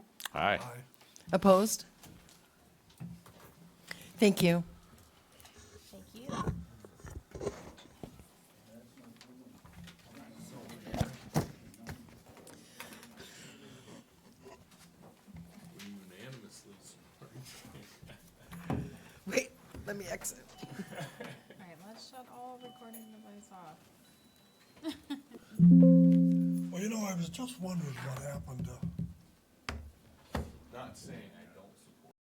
Aye. Opposed? Thank you. Thank you. Wait, let me exit. All right, let's shut all recording devices off. Well, you know, I was just wondering what happened to Not saying